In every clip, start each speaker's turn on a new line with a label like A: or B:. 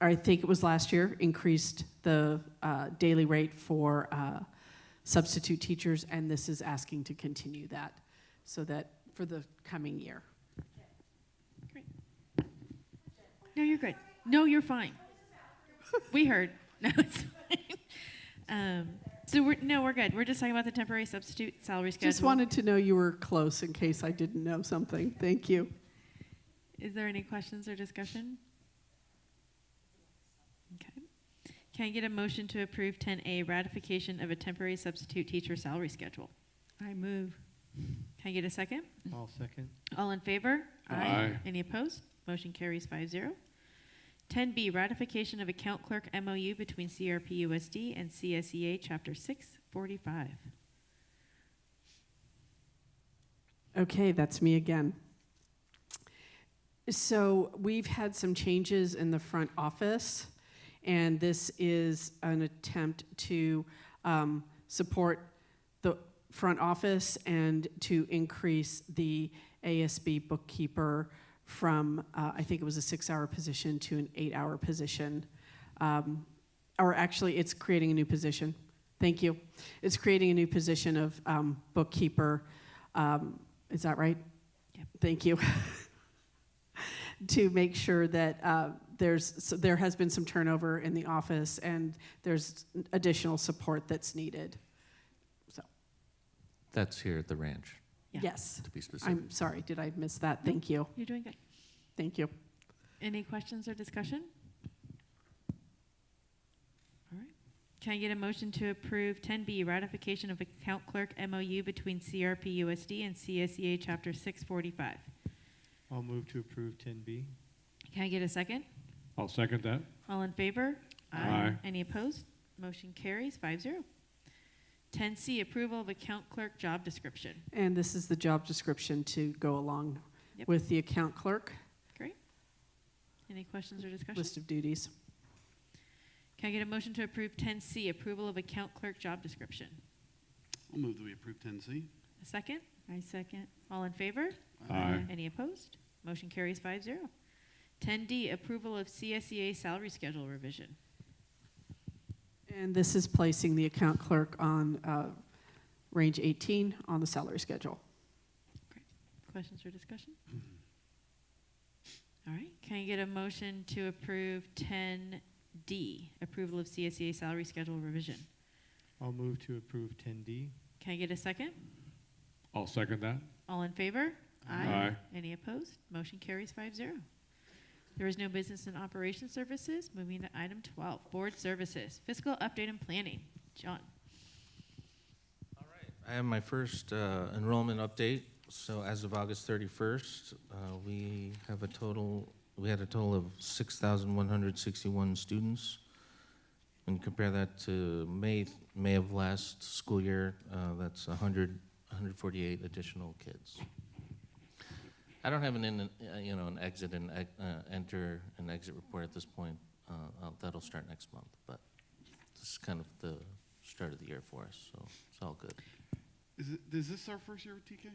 A: I think it was last year, increased the uh, daily rate for uh, substitute teachers, and this is asking to continue that, so that for the coming year.
B: No, you're good. No, you're fine. We heard. No, it's fine. Um, so we're no, we're good. We're just talking about the temporary substitute salary schedule.
A: Just wanted to know you were close in case I didn't know something. Thank you.
B: Is there any questions or discussion? Okay. Can I get a motion to approve 10A ratification of a temporary substitute teacher salary schedule?
C: I move.
B: Can I get a second?
D: I'll second.
B: All in favor?
C: Aye.
E: Aye.
B: Any opposed? Motion carries 5-0. 10B, ratification of account clerk MOU between CRPUSD and CSEA Chapter 645.
A: Okay, that's me again. So we've had some changes in the front office, and this is an attempt to um, support the front office and to increase the ASB bookkeeper from, uh, I think it was a six-hour position to an eight-hour position. Um, Or actually, it's creating a new position. Thank you. It's creating a new position of um, bookkeeper um, Is that right?
B: Yep.
A: Thank you. To make sure that uh, there's, so there has been some turnover in the office and there's additional support that's needed.
F: That's here at the ranch,
B: Yeah.
A: Yes,
F: to be specific.
A: I'm sorry, did I miss that? Thank you,
B: You're doing good.
A: thank you.
B: Any questions or discussion? All right. Can I get a motion to approve 10B, ratification of account clerk MOU between CRPUSD and CSEA Chapter 645?
D: I'll move to approve 10B.
B: Can I get a second?
E: I'll second that.
B: All in favor?
E: Aye.
B: Any opposed? Motion carries 5-0. Ten C, approval of account clerk job description.
A: And this is the job description to go along
B: Yep.
A: with the account clerk,
B: Any questions or discussion?
A: list of duties.
B: Can I get a motion to approve ten C, approval of account clerk job description?
G: I'll move that we approve 10C.
B: A second?
C: I second.
B: All in favor?
E: Aye.
B: Any opposed? Motion carries 5-0. Ten D, approval of CSEA salary schedule revision.
A: And this is placing the account clerk on uh, range 18 on the salary schedule.
B: Questions or discussion? All right, can I get a motion to approve ten D, approval of CSEA salary schedule revision?
D: I'll move to approve 10D.
B: Can I get a second?
E: I'll second that.
B: All in favor?
E: Aye.
B: Any opposed? Motion carries 5-0. There is no business and operations services. Moving to item 12, board services, fiscal update and planning. John?
F: I have my first uh, enrollment update. So as of August 31st, uh, we have a total, we had a total of 6,161 students. And compare that to May, May of last school year, uh, that's 100, 148 additional kids. I don't have an, in- uh, you know, an exit and, ex- uh, enter and exit report at this point. Uh, I'll- That'll start next month, but this is kind of the start of the year for us, so it's all good.
G: Is, it, is this our first year with TK?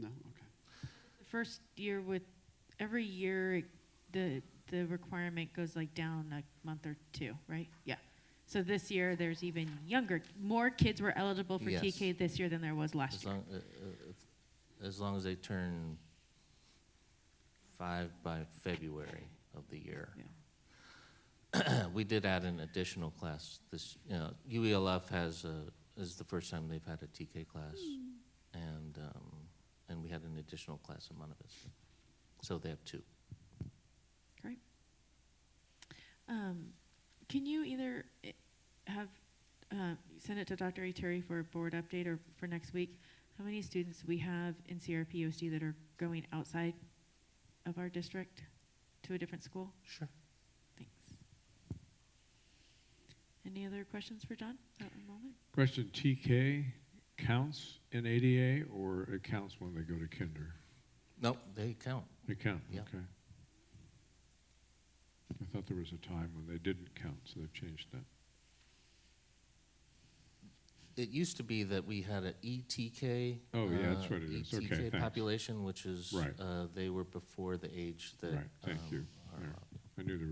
G: No? Okay.
B: The first year with, every year, the, the requirement goes like down a month or two, right? Yeah. So this year, there's even younger, more kids were eligible for
F: Yes.
B: TK this year than there was last
F: As
B: year.
F: long, uh, uh, as long as they turn five by February of the year.
B: Yeah.
F: We did add an additional class this, you know, UELF has, a- is the first time they've had a TK class.
B: Hmm.
F: And, um, and we had an additional class in Monte Vista. So they have two.
B: Um, can you either eh, have, uh, send it to Dr. Terry for a board update or for next week? How many students we have in CRPOSD that are going outside of our district to a different school?
F: Sure.
B: Thanks. Any other questions for John at the moment?
E: Question, TK counts in ADA or it counts when they go to kinder?
F: Nope, they count.
E: They count,
F: Yeah.
E: okay. I thought there was a time when they didn't count, so they've changed that.
F: It used to be that we had an ETK.
E: Oh, yeah, that's
F: uh,
E: what it is. Okay,
F: ETK
E: thanks.
F: population, which is,
E: Right.
F: uh, they were before the age that.
E: Right, thank
F: um,
E: you.
F: are
E: Yeah.
F: up.
E: I knew there